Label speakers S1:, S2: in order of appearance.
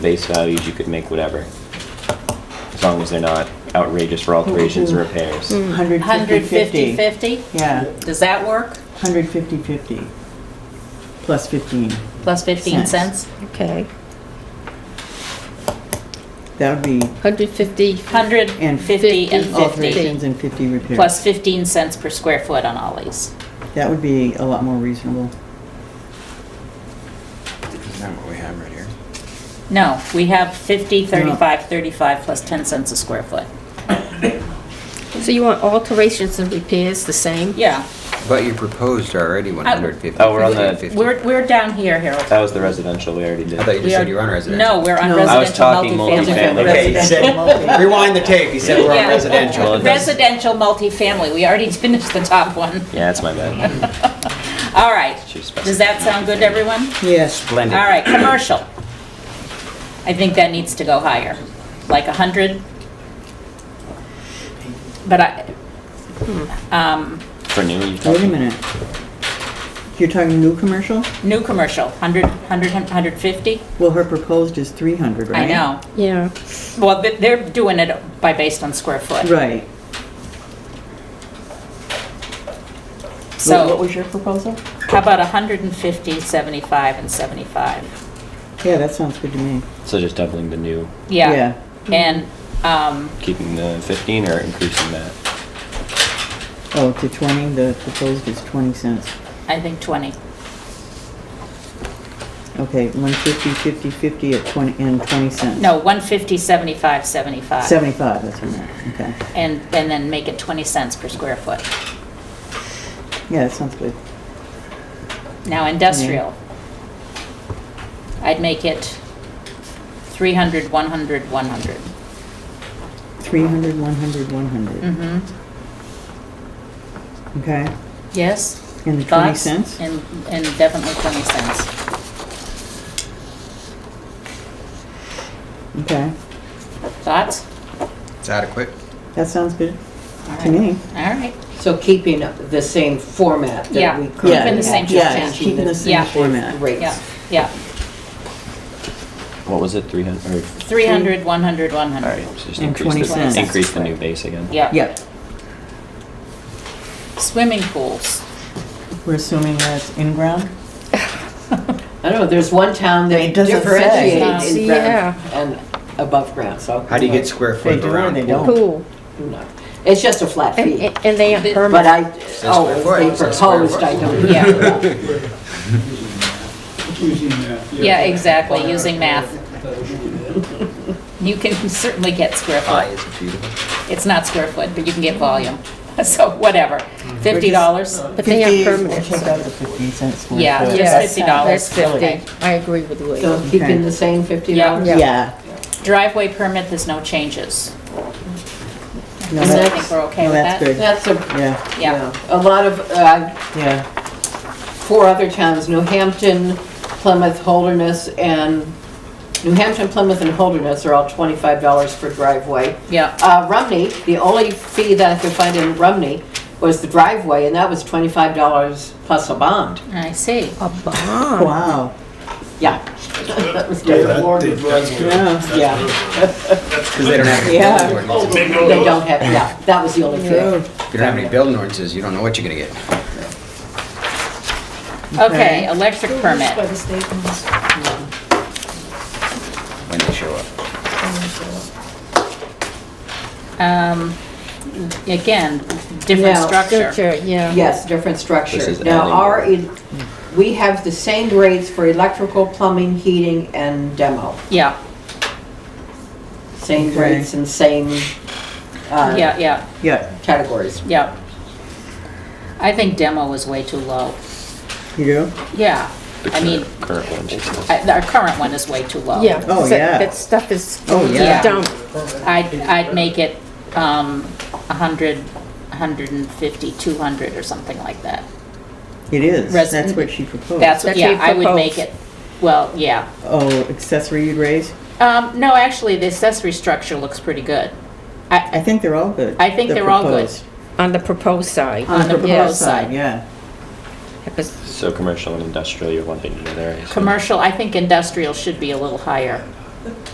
S1: base values, you could make whatever. As long as they're not outrageous for alterations or repairs.
S2: Mm-hmm. 150,
S3: 150-50.
S2: 50?
S3: Yeah,
S2: Does that work?
S3: 150-50, plus 15.
S2: Plus 15
S3: Cents.
S2: cents?
S4: Okay,
S3: That would be
S4: 150,
S2: 150 and 50,
S3: alterations and 50 repairs.
S2: plus 15 cents per square foot on all these.
S3: That would be a lot more reasonable.
S5: Is that what we have right here?
S2: No, we have 50, 35, 35, plus 10 cents a square foot.
S4: so you want alterations and repairs the same?
S2: Yeah,
S5: But you proposed already 150.
S1: Oh, we're on the-
S5: 50.
S2: we're, we're down here, Harold.
S1: That was the residential we already did.
S5: I thought Oh, you
S2: We
S5: just
S2: are-
S5: said you were on residential.
S2: No, we're on
S3: No.
S1: I was
S2: residential
S1: talking
S2: multifamily.
S1: multifamily.
S5: Okay, you said-
S3: Multifamily.
S5: rewind the tape, you said we're
S2: Yeah.
S5: on residential.
S1: Well, that's-
S2: Residential multifamily, we already finished the top one.
S1: Yeah, that's my bad.
S2: All right,
S1: Should specify
S2: does that sound good to everyone?
S3: Yes.
S5: Blended.
S2: All right, commercial. I think that needs to go higher, like 100. But I, um,
S1: For new, you
S3: Wait a
S1: talking?
S3: minute. You're talking new commercial?
S2: new commercial, 100, 100, 150?
S3: Well, her proposed is 300, right?
S2: I know.
S4: Yeah,
S2: Well, th- they're doing it by, based on square foot.
S3: Right. Wha- What
S2: So
S3: was your proposal?
S2: how about 150, 75, and 75?
S3: Yeah, that sounds good to me.
S1: So just doubling the new,
S2: Yeah. And, um,
S1: keeping the 15 or increasing that?
S3: Oh, to 20, the proposed is 20 cents.
S2: I think 20.
S3: Okay, 150, 50, 50 at 20, and 20 cents.
S2: No, 150, 75, 75.
S3: 75, that's what I meant, okay.
S2: And, and then make it 20 cents per square foot.
S3: Yeah, that sounds good.
S2: Now industrial. I'd make it 300, 100, 100.
S3: 300, 100, 100,
S2: Mm-hmm.
S3: okay?
S2: Yes?
S3: And the 20
S2: Mm. Thoughts?
S3: cents?
S2: And, and definitely 20 cents.
S3: Okay,
S2: Thoughts?
S5: It's adequate.
S3: that sounds good
S2: All
S3: to
S2: right.
S3: me.
S2: All right.
S6: So keeping the same format
S2: Yeah.
S6: that we
S2: Keeping
S6: currently
S3: Yeah,
S6: have.
S2: the same
S3: Yeah,
S2: format.
S3: keeping the
S2: Yeah.
S3: same format.
S6: Rates.
S2: Yeah, yeah.
S1: What was it, 300?
S2: 300, 100,
S1: All right,
S2: 100.
S1: so just
S3: And
S1: increase
S3: 20
S1: the,
S2: Mm, cents.
S1: increase the new base again.
S2: Yeah.
S3: Yep,
S2: Swimming pools.
S3: we're assuming that's in-ground?
S6: I don't know, there's one town that
S3: It doesn't say.
S6: differentiates in
S4: Yeah.
S6: ground and above ground, so.
S5: How do you get square
S3: They
S5: foot
S3: do or
S5: around?
S3: they
S5: pool?
S3: don't?
S4: pool.
S6: Who knows? It's just a flat
S4: And
S6: fee.
S4: and they aren't
S6: But
S4: permanent.
S6: I, oh, if
S5: square foot,
S6: they
S5: it's a square
S6: proposed, I
S5: foot.
S6: don't.
S2: Yeah,
S7: Using math.
S2: yeah, exactly, using math. You can certainly get square
S5: Ah,
S2: foot.
S5: it's beautiful.
S2: It's not square foot, but you can get volume. So whatever.
S3: Mm-hmm.
S2: $50?
S4: But they aren't
S3: 50
S4: permanent.
S3: We'll
S4: so-
S3: take out the 15 cents. square
S2: Yeah,
S3: foot.
S2: just
S4: Yes,
S2: fifty dollars.
S4: That's 50. I agree with Lee.
S6: So keeping the same fifty dollars?
S4: Yeah.
S3: Yeah.
S2: Driveway permit, there's no changes.
S3: No,
S2: I
S3: that's-
S2: think we're okay
S3: no,
S2: with
S3: that's
S2: that.
S3: good.
S6: That's a,
S3: Yeah,
S2: Yeah.
S6: yeah, a lot of, uh,
S3: yeah,
S6: four other towns, New Hampton, Plymouth, Holderness, and, New Hampton, Plymouth, and Holderness are all twenty-five dollars for driveway.
S2: Yeah.
S6: Uh, Rumney, the only fee that I could find in Rumney was the driveway, and that was twenty-five dollars plus a bond.
S2: I see.
S4: A bond.
S3: wow,
S6: Yeah. That
S7: Yeah, that- that's
S6: was good.
S7: good.
S3: yeah,
S6: Yeah,
S5: Because they don't have any
S3: Yeah.
S5: building ordinances.
S7: They know
S6: they
S7: those.
S6: don't have, yeah, that was the only
S3: yeah.
S6: fee.
S5: If you don't have any building ordinances, you don't know what you're going to get.
S2: Okay, electric permit.
S8: the state ones.
S5: when they show up.
S2: Um, again, different
S6: Now-
S2: structure.
S4: Structure, yeah.
S6: Yes, different
S1: This
S6: structure.
S1: is
S6: Now,
S1: adding
S6: our,
S1: more.
S6: e- we have the same rates for electrical, plumbing, heating, and demo.
S2: Yeah,
S6: Same
S3: Okay.
S6: rates and same uh,
S2: yeah, yeah,
S3: Yeah,
S6: categories.
S2: yeah. I think demo was way too low.
S3: you do?
S2: Yeah,
S1: The
S2: I mean,
S1: current- Current one, she says.
S2: I- our current one is way too low.
S4: Yeah.
S3: Oh,
S4: so
S3: yeah.
S4: That stuff is
S3: Oh, yeah.
S4: dumb.
S2: I'd, I'd make it, um, a hundred, a hundred and fifty, two hundred or something like that.
S3: It is,
S2: Res-
S3: that's what she proposed.
S2: That's,
S4: That's
S2: yeah,
S4: what
S2: I
S4: you
S2: would make it,
S4: proposed.
S2: well, yeah.
S3: Oh, accessory you'd raise?
S2: Um, no, actually, the accessory structure looks pretty good.
S3: I
S2: I,
S3: think they're all good.
S2: I think
S3: The
S2: they're all good.
S3: proposed.
S4: On the proposed side.
S3: Uh.
S2: On the proposed side.
S3: Yeah,
S4: Because
S1: So commercial and industrial, you're wanting to know there. I assume.
S2: commercial, I think industrial should be a little higher.